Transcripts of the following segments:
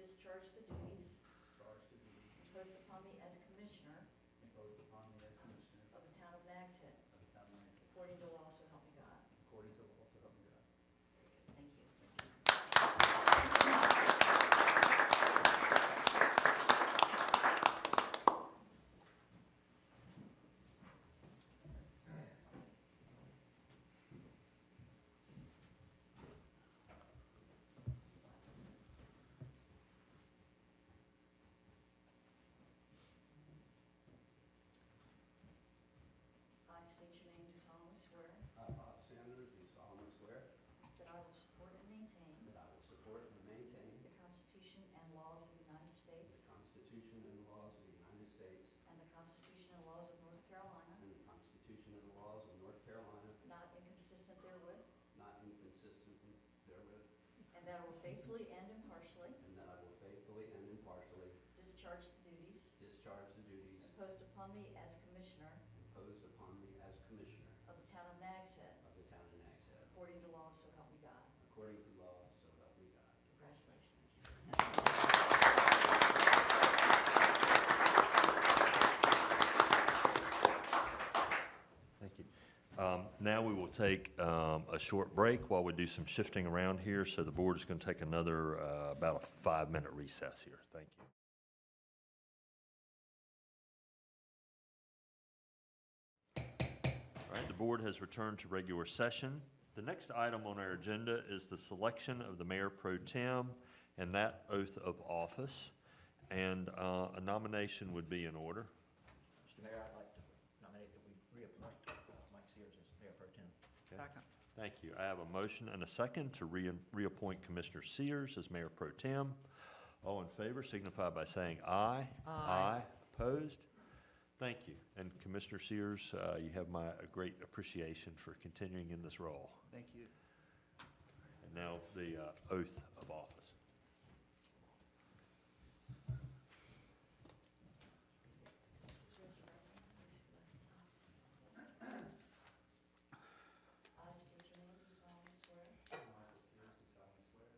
discharge the duties discharge the duties imposed upon me as Commissioner imposed upon me as Commissioner of the Town of Nags Head, of the Town of Lansing, according to law, so help me God. according to the laws of the God. Thank you. I state your name, do solemnly swear I, Bob Sanders, do solemnly swear that I will support and maintain that I will support and maintain the Constitution and laws of the United the States Constitution and laws of the United States and the Constitution and laws of North Carolina, and the Constitution and laws of North Carolina, not inconsistent therewith, not inconsistent therewith, and that I will faithfully and impartially and that I will faithfully and impartially discharge the duties discharge the duties imposed upon me as Commissioner imposed upon me as Commissioner of the Town of Nags Head, of the Town of Nags Head, according to law, so help me God. according to law, so help me God. Congratulations. Thank you. Um, Now we will take um, a short break while we do some shifting around here. So the board is going to take another, uh, about a five-minute recess here. Thank you. All right, the board has returned to regular session. The next item on our agenda is the selection of the mayor pro tem and that oath of office. And uh, a nomination would be in order. Mr. Mayor, I'd like to nominate that we reappoint Mike Sears as mayor pro tem. Second. Thank you. I have a motion and a second to re- reappoint Commissioner Sears as mayor pro tem. All in favor signify by saying aye. Aye. Opposed? Thank you. And Commissioner Sears, uh, you have my great appreciation for continuing in this role. Thank you. And now the uh, oath of office. I state your name, do solemnly swear Michael Sears, do solemnly swear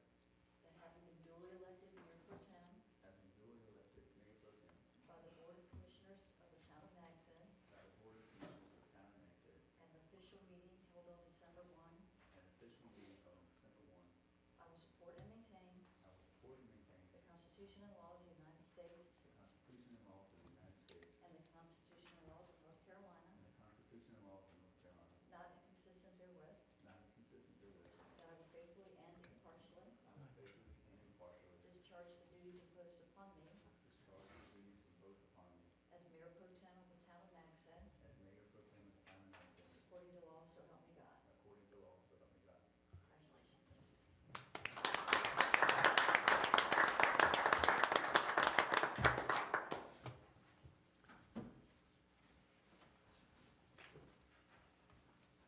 that having been duly elected mayor pro tem having duly elected mayor pro tem by the Board of Commissioners of the Town of Nags Head by the Board of Commissioners of the Town of Nags Head, and the official meeting held on December 1, an official meeting on December one, I will support and maintain I will support and maintain the Constitution and laws of the United States the Constitution and laws of the United States and the Constitution and laws of North Carolina, and the Constitution and laws of North Carolina, not inconsistent therewith, Not inconsistent therewith. that I will faithfully and impartially I will faithfully and impartially discharge the duties imposed upon me discharge the duties imposed upon me as mayor pro tem of the Town of Nags Head as mayor pro tem of the town of Lansing, according to law, so help me God. according to law, so help me God. Congratulations.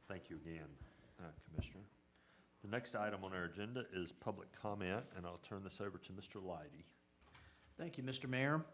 Thank you again, uh, Commissioner. The next item on our agenda is public comment, and I'll turn this over to Mr. Leidy. Thank you, Mr. Mayor.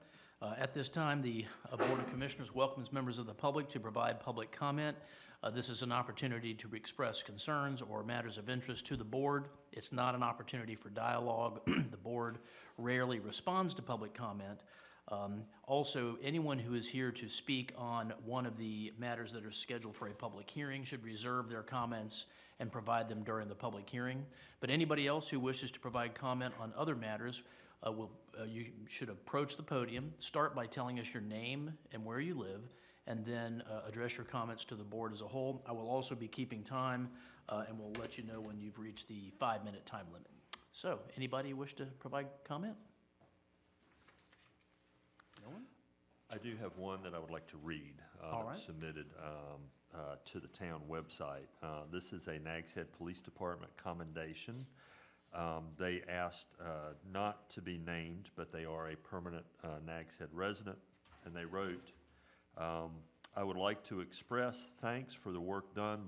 Uh, At this time, the uh, Board of Commissioners welcomes members of the public to provide public comment. Uh, This is an opportunity to express concerns or matters of interest to the board. It's not an opportunity for dialogue. The board rarely responds to public comment. Um, Also, anyone who is here to speak on one of the matters that are scheduled for a public hearing should reserve their comments and provide them during the public hearing. But anybody else who wishes to provide comment on other matters uh, will, uh, you should approach the podium, start by telling us your name and where you live, and then uh, address your comments to the board as a whole. I will also be keeping time, uh, and will let you know when you've reached the five-minute time limit. So, anybody wish to provide comment? No one? I do have one that I would like to read. uh, that All was right. Submitted um, uh, to the town website. Uh, This is a Nags Head Police Department commendation. Um, They asked uh, not to be named, but they are a permanent uh, Nags Head resident, and they wrote, um, "I would like to express thanks for the work done by."